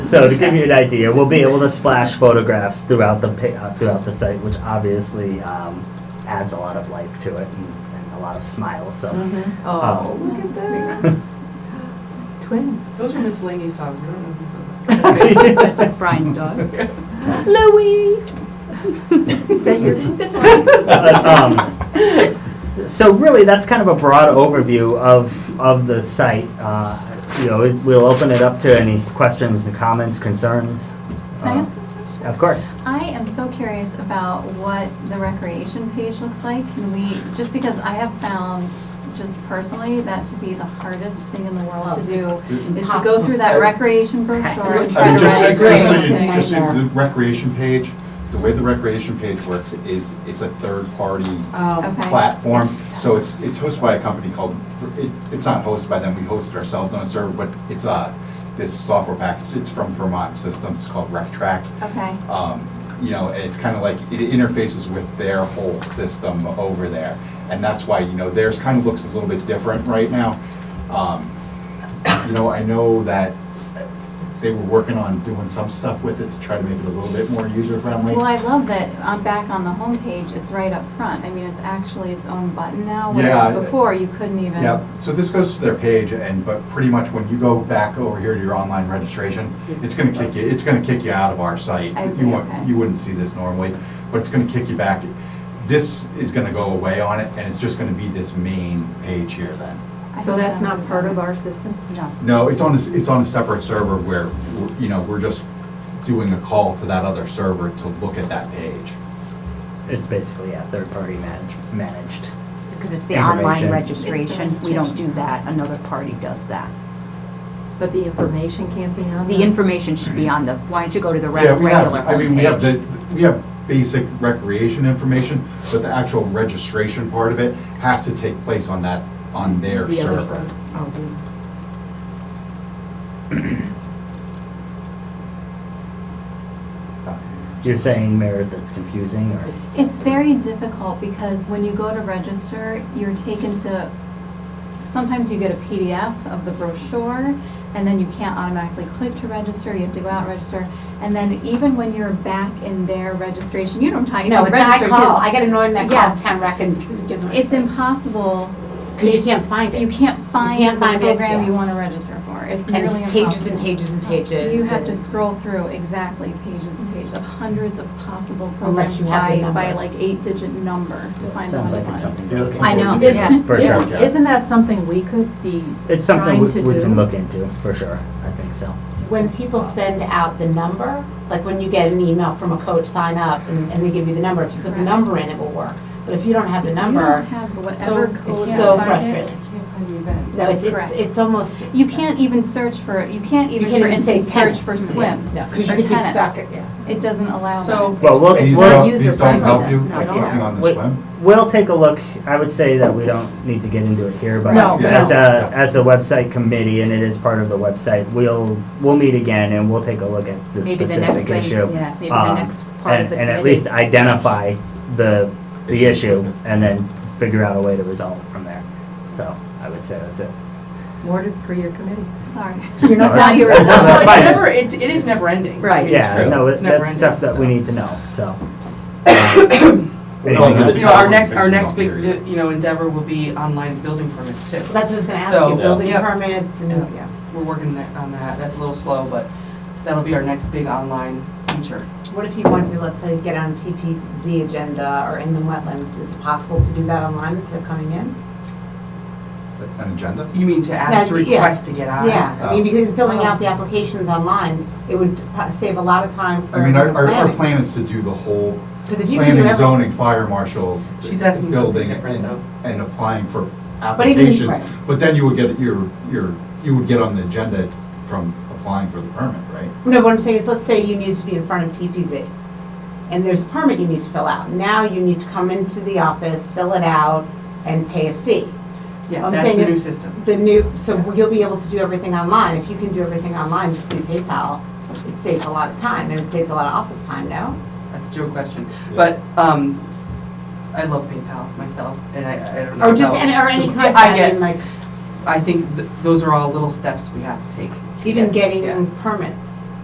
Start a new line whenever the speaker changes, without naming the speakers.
So to give you an idea, we'll be able to splash photographs throughout the pi- uh, throughout the site, which obviously um, adds a lot of life to it and, and a lot of smiles. So
Mm-hmm.
Oh,
Um,
look at that.
Twins.
Those are miscellaneous dogs, we don't know who
Oh.
That's Brian's dog.
Louie! Is that your?
That's right.
But, um, so really, that's kind of a broad overview of of the site. Uh, you know, it, we'll open it up to any questions and comments, concerns.
Can I
Uh,
ask a question?
Of course.
I am so curious about what the recreation page looks like. Can we, just because I have found, just personally, that to be the hardest thing in the world to do, is to go through that recreation brochure and
I
try
mean,
to
just,
write
just so you,
something.
just so the recreation page, the way the recreation page works is, it's a third-party
Um,
Okay.
platform. So it's, it's hosted by a company called, it, it's not hosted by them, we host it ourselves on a server, but it's, uh, this software package, it's from Vermont Systems, it's called RecTrack.
Okay,
Um, you know, and it's kind of like, it interfaces with their whole system over there. And that's why, you know, theirs kind of looks a little bit different right now. Um, You know, I know that they were working on doing some stuff with it to try to make it a little bit more user-friendly.
well, I love that, I'm back on the homepage, it's right up front. I mean, it's actually its own button now, whereas
Yeah.
before, you couldn't even.
Yep, so this goes to their page and, but pretty much when you go back over here to your online registration, it's gonna kick you, it's gonna kick you out of our site.
I
You
see,
won't-
okay.
You wouldn't see this normally, but it's gonna kick you back. This is gonna go away on it and it's just gonna be this main page here then.
I
So
think
that's
that
not
would be
part of
better.
our system?
No.
No, it's on, a s- it's on a separate server where, we're- you know, we're just doing a call to that other server to look at that page.
It's basically, yeah, third-party manage- managed.
Because it's the online
Information.
registration, we don't do
registration.
that, another party does that.
But the information can't be on
The
there?
information should be on the, why don't you go to the reg-
Yeah, we
regular
have. I mean, we have the,
homepage?
we have basic recreation information, but the actual registration part of it has to take place on that, on their
The other
server.
side. Oh,
You're saying, Merit, that's confusing, or?
It's very difficult because when you go to register, you're taken to, sometimes you get a PDF of the brochure, and then you can't automatically click to register, you have to go out and register. And then even when you're back in their registration, you don't time, you
No,
don't
it's
register.
I call,
'cause
I get annoyed when I
Yeah.
call town rec and.
It's impossible,
Because you can't find
you
it.
can't find
can't
the
find it,
program you
yeah.
wanna register for, it's
And
nearly
it's
impossible.
pages and pages and pages.
You have to
and-
scroll through exactly pages and pages of hundreds of possible programs
Unless you have
by,
the
by
number.
like eight-digit number to find the one
Sounds
you
like it's
want.
something.
Yeah,
to
that's
look
I
something
know,
we-
yeah.
okay.
For sure.
Isn't- Isn't that something we could be
It's something
trying
we,
to do?
we can look into, for sure. I think so.
When people send out the number, like when you get an email from a coach, sign up, and, and they give you the number, if you put the
Correct.
number in, it will work. But if you don't have the
You don't
number,
have
so
whatever code.
it's
you
so
have.
frustrating. No, it's, it's,
Correct.
it's almost.
You can't even search for, you can't
You
even,
can't
for
even say
instance, search
tennis.
for swim.
No, because
or
you could be
tennis.
stuck, at- yeah.
It doesn't allow
So-
that.
Well, we'll,
These
Well,
we'll,
don't, these don't
user-friendly.
help you,
No,
like
no.
looking on the
we-
swim?
we'll take a look. I would say that we don't need to get into it here, but
No,
as
no.
a, as a website committee, and it is part of the website, we'll, we'll meet again and we'll take a look at this
Maybe the next
specific
thing,
issue.
yeah, maybe the
um,
next part of
and-
the
And at
committee.
least identify the, the
Issue.
issue and then figure out a way to resolve it from there. So I would say that's it.
More to- for your committee.
Sorry.
You're
No,
not
that's-
done.
your
that's-
result.
Well,
that's
it's
fine.
never, it, it is never ending.
Right.
Yeah, no, it-
It's never
that's
ending,
stuff that we
so.
need to know, so.
Well,
Anything
no,
else?
You know, our next,
Picture
our next big,
period.
uh, you know, endeavor will be online building permits too.
Well, That's what I was gonna ask
So-
you, building
Yeah.
permits and,
Yeah.
yeah.
We're working that- on that, that's a little slow, but that'll be our next big online feature.
What if you wanted to, let's say, get on TPZ agenda or inland wetlands, is it possible to do that online instead of coming in?
An agenda?
You mean to ask, to
That'd be- yeah.
request to get on?
Yeah, I mean,
Oh.
because filling out the applications online, it would pro- save a lot of time for
I mean, our,
planning.
our, our plan is to do the whole
Because if you can do
planning,
everything.
zoning, fire marshal,
She's asking something
building,
different,
and,
though.
and applying for
But even-
applications.
right.
But then you would get your, your, you would get on the agenda from applying for the permit, right?
No, what I'm saying is, let's say you need to be in front of TPZ, and there's a permit you need to fill out. Now you need to come into the office, fill it out, and pay a fee.
Yeah,
I'm
that's
saying
the
it-
new system.
The new, so you'll be able to do everything online. If you can do everything online, just do PayPal, it saves a lot of time, and it saves a lot of office time, no?
That's a joke question. But, um, I love PayPal myself, and I, I don't know.
Or just,
about-
any- or any
Yeah,
kind,
I
I
get,
mean, like,
I think th- those are all little steps we have to take.
even
Yeah.
getting permits.